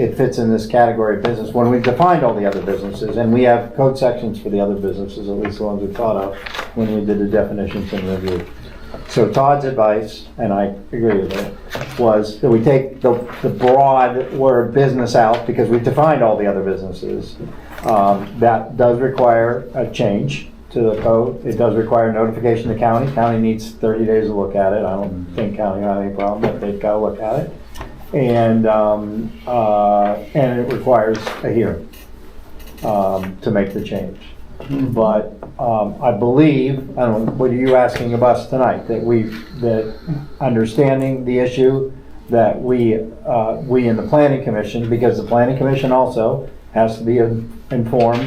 it fits in this category of business, when we've defined all the other businesses, and we have code sections for the other businesses, at least the ones we thought of, when we did the definitions and review. So Todd's advice, and I agree with it, was that we take the, the broad word business out, because we've defined all the other businesses. Um, That does require a change to the code, it does require notification to county, county needs thirty days to look at it, I don't think county had any problem, but they've gotta look at it. And, um, uh, and it requires a hearing, um, to make the change. But, um, I believe, I don't, know, what are you asking of us tonight? That we, that understanding the issue, that we, uh, we in the planning commission, because the planning commission also has to be in- informed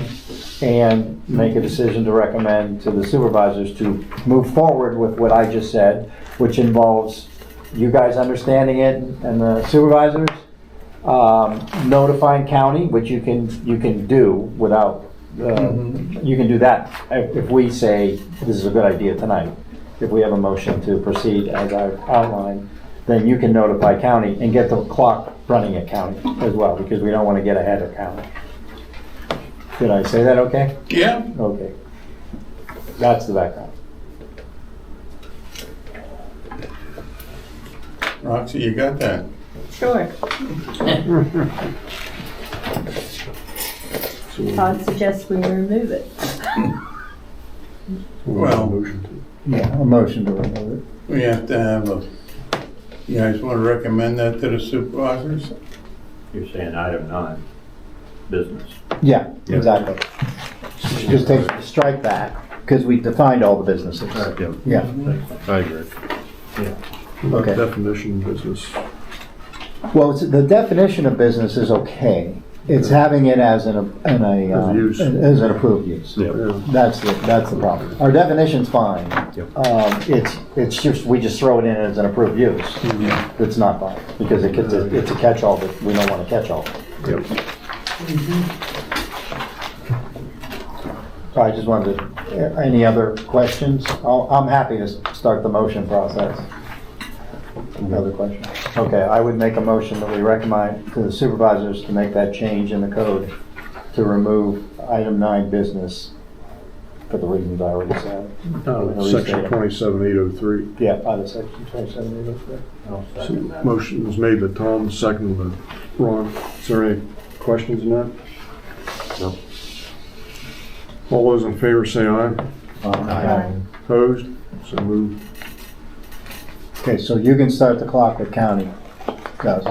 and make a decision to recommend to the supervisors to move forward with what I just said, which involves you guys understanding it and the supervisors, um, notifying county, which you can, you can do without, uh, you can do that if if we say this is a good idea tonight. If we have a motion to proceed as I've outlined, then you can notify county and get the clock running at county as well, because we don't want to get ahead of county. Did I say that okay? Yeah, Okay. That's the background. Roxy, you got that. Sure. Todd suggests we remove it. Well, Yeah, a motion to remove it. we have to have a, you guys want to recommend that to the supervisors? You're saying item nine, business. Yeah, exactly. Just take, strike that, because we defined all the businesses. Yeah, Yeah, I agree. Okay. Definition business. well, it's- the definition of business is okay. It's having it as an, in a, uh, As use. as an approved use. That's the, that's the problem. Our definition's fine. Yep. Um, It's, it's just, we just throw it in as an approved use. It's not fine, because it gets, a- it's a catch-all, but we don't want a catch-all. Yep. So I just wanted, to- uh, any other questions? I'll- I'm happy to start the motion process. Another question? Okay, I would make a motion that we recommend to the supervisors to make that change in the code to remove item nine business for the reasons I already said. Uh, Section twenty-seven eight oh three. Yeah, out of section 27, you know, I'll second that. Motion was made by Tom, second by Ron. Is there any questions in that? No. All those in favor say aye. Opposed? So moved. Okay, so you can start the clock with county. Does.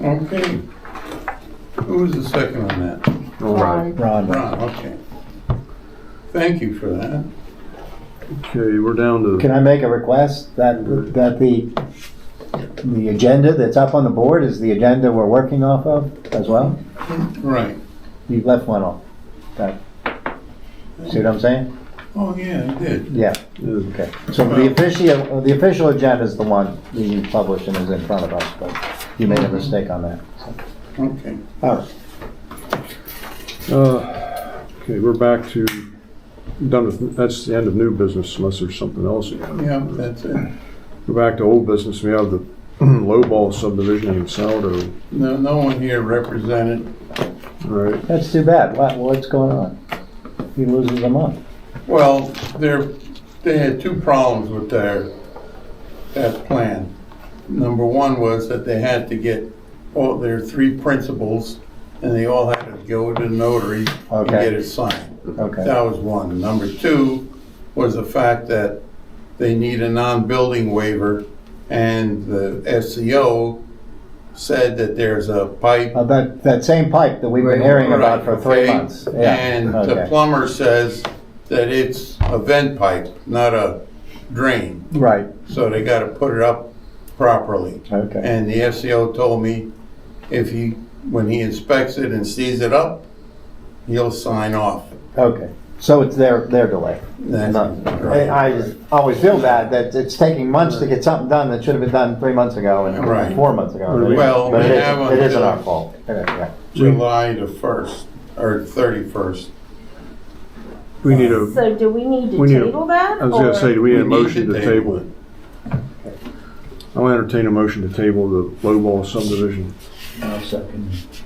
Okay. Who was the second on that? All right. Ron, Ron, okay. Thank you for that. Okay, we're down can to, I make a request that, that the, the agenda that's up on the board is the agenda we're working off of as well? Right. You left one off. That- See what I'm saying? Oh, yeah, I did. Yeah, yeah, okay. So the official, the official agenda is the one that you published and is in front of us, but you made a mistake on that. so. Okay. All right, uh, okay, we're back to, done with, that's the end of new business unless there's something else. Yeah, that's it. We're back to old business. We have the lowball subdivision in Saldo. No, no one here represented. All right, that's too bad. What, what's going on? He loses a month. Well, there, they had two problems with their, that plan. Number one was that they had to get all their three principals, and they all had to go to the notary and Okay. get it signed. Okay, That was one. Number two was the fact that they need a non-building waiver, and the SCO said that there's a pipe Uh, that, that same pipe that we've been hearing about for three Right, okay. months. Yeah, And the okay. plumber says that it's a vent pipe, not a drain, Right, so they gotta put it up properly. okay, And the SEO told me if he, when he inspects it and sees it up, he'll sign off. okay. So it's their, their delay. That's- uh, I I always feel bad that it's taking months to get something done that should have been done three months ago and Right. four months ago. Well, But it we is- have It isn't until- our fault. Yeah, yeah. July the first, or thirty-first. we need a, So do we need to We need a- table that? I was gonna say, do we need a motion to table? it. I'll entertain a motion to table the lowball subdivision. I'll second.